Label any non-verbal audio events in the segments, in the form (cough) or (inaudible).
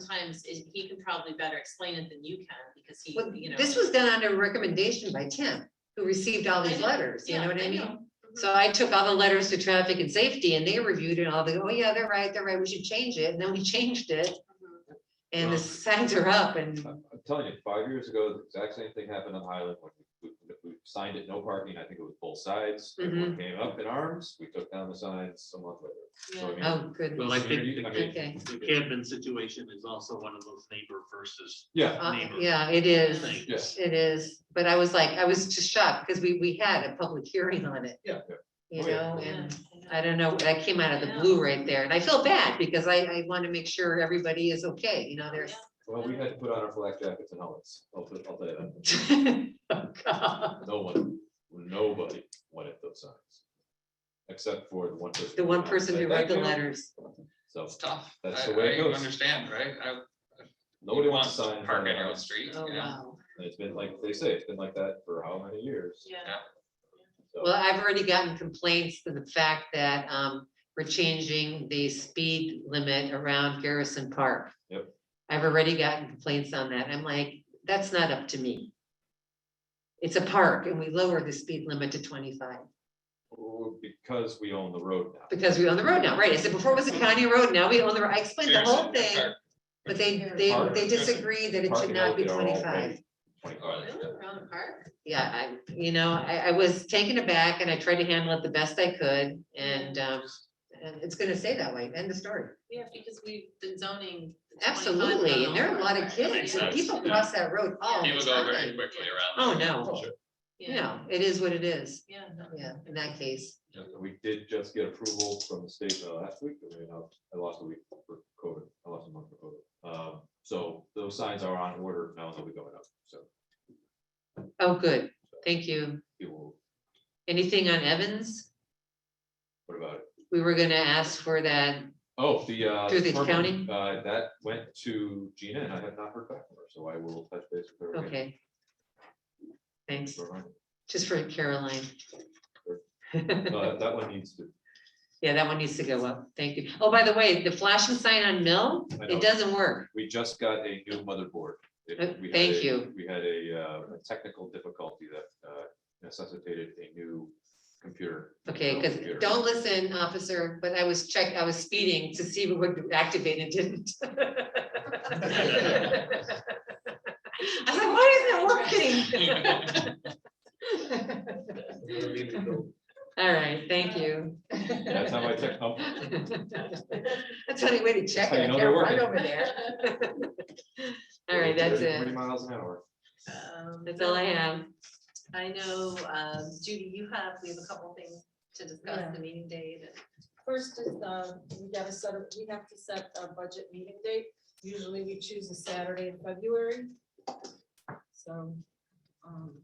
sometimes it- he can probably better explain it than you can, because he, Well, you know. This was done under recommendation by Tim, who received all I these know, letters, you yeah, know what I mean? know. Mhm. So I took all the letters to traffic and safety and they reviewed it all, they go, oh yeah, they're right, they're right, we should change it. And then we (laughs) changed it Mhm. and the signs are up and I'm I'm telling you, five years ago, the exact same thing happened on Highland when we, we- we signed it, no parking, I think it was both sides. Mm-hmm. Everyone came up in arms, we took down the signs a month later. So I Yeah. mean, Oh, goodness. Well, I it's think really- the- I mean, Okay. The Cadman situation is also one of those neighbor versus Yeah, Uh, neighbor. Yeah, it is. thing. yes, It is. But I was like, I was just shocked because we, we had a public hearing on it, yeah, you Oh, yeah. know, Yeah, and I know. I don't know, that came out of the blue right there. And I feel bad because I, I want to make sure everybody is okay, Oh, you know, there's. well, we had to put on our flak jackets and helmets, I'll, put- I'll tell you that, (laughs) Oh, God. no one, nobody wanted those signs. Except for the one person. The one person who said, wrote the "Thank you." letters. So, It's tough. That's I- the way it I goes. Understand, right? I- you nobody wants a want sign. in front Park of on their your own house. street, Oh, you know? wow. And it's been like, they say, it's been like that for how many years? Yeah. So- Well, I've already gotten complaints to the fact that um we're changing the speed limit around Garrison Park. Yep. I've already gotten complaints on that. I'm like, that's not up to me. It's a park and we lower the speed limit to twenty-five Well, Because we own the road now. because we own the road now, right? I said before it was a county road, now we own the, road. I explained the whole Seriously, thing. or- But they they Park. they disagree that it should Parking not be out there all twenty-five. day, 25. Really, around the park? yeah, I, you know, I, I was taken aback and I tried to handle it the best I could and, um, and it's gonna stay that way, end of story. Yeah, because we've been zoning. the 25 Absolutely, and there are a lot of zone. kids, Makes and people sense, yeah. cross that road all People the go very time. quickly around. Oh, that. no, Sure. Yeah, no, it is what it is, yeah. no. yeah, in that case, Yeah, We did just get approval from the state uh, last week, I mean, uh, I lost a week for COVID, I lost a month for COVID. Um, So those signs are on order now, they'll be going up, so oh, good, thank you. people, Anything on Evans? what about it? We were gonna ask for that, Oh, the. uh, Through the permit, county? uh, That went to Gina, and I have not heard back from her, so I will touch base with her. again. okay. Thanks, Remind her. just for Caroline. Uh, That one needs to, Yeah, that one needs to go up, thank you. Oh, by the way, the flashing sign on Mill, I know. it doesn't work. we just got a new motherboard. It- Uh, we had thank a- you. We had a uh, a technical difficulty that uh, necessitated a new computer. Okay, Dell because computer. don't listen, officer, but I was check, I was speeding to see what would activate and (laughs) didn't. I was like, why isn't it working? All right, thank you. That's how I check, oh, That's the only way to check how you it. I can't know they're run working. over there. (laughs) All right, that's 30, Forty it. miles an hour. Um, That's all I have. I know, um, Judy, you have, we have a couple things to Yeah. discuss, the meeting date. and- First is, uh, we gotta set, a- we have to set a budget meeting date. Usually we choose a Saturday in February. So, um.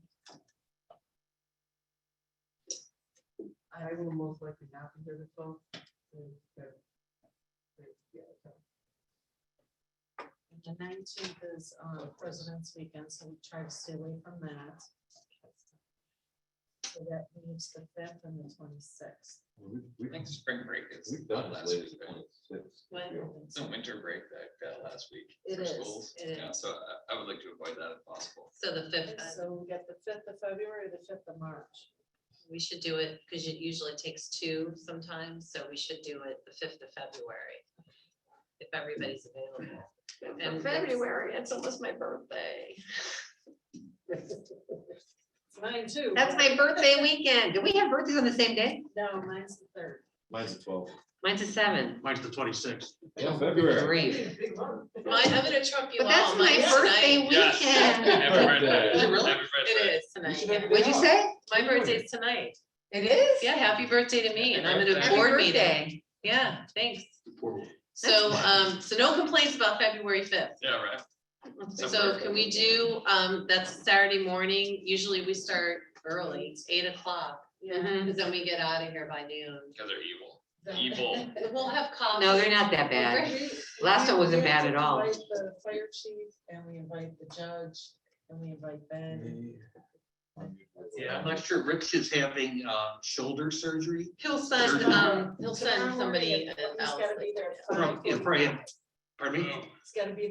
I will most likely not be here the twelfth. The nineteenth is, uh, President's Weekend, so we try to stay away from that. So that leaves the fifth and the twenty-sixth. We- I think we- spring break is. We've done last this late as week, right? 26. What? Yeah. It's a winter break that got last week. It for is, schools. it Yeah, is. So I- I would like to avoid that if possible. So the fifth, uh, So we get the fifth of February, the fifth of March. we should do it, because it usually takes two sometimes, so we should do it the fifth of February. If everybody's available. And February, it's almost my birthday. It's Mine too. That's my birthday weekend. Do we have birthdays on the same day? No, mine's the third. Mine's at twelve. Mine's a seven. March the twenty-sixth. Yeah, February. Grief. Big month. Mine- I'm gonna trump you But all. that's my Mine's birthday tonight. Yes. weekend. Everybody- Birthday. (laughs) everybody- Really? everybody- It is You tonight. should yeah. have a What'd day you off. say? My birthday's tonight. It is? Yeah, happy birthday to me, and I'm at a Happy board meeting. birthday. Yeah, thanks. So, um, so no complaints about February fifth. Yeah, right. So can we do, um, that's Saturday morning, usually we start early, it's eight o'clock, Yeah. Mhm. because then we get out of here by noon. Because they're evil. The- Evil. We'll have coffee. No, they're not that bad. We- Last one wasn't we bad have at to all. invite The fire chief and we invite the judge and we invite Ben. Yeah, I'm not sure. Rich is having uh, shoulder surgery. He'll send, um, he'll send somebody He's else. gotta be there. at Probably, yeah, probably 5:45. Pardon me? It's gotta be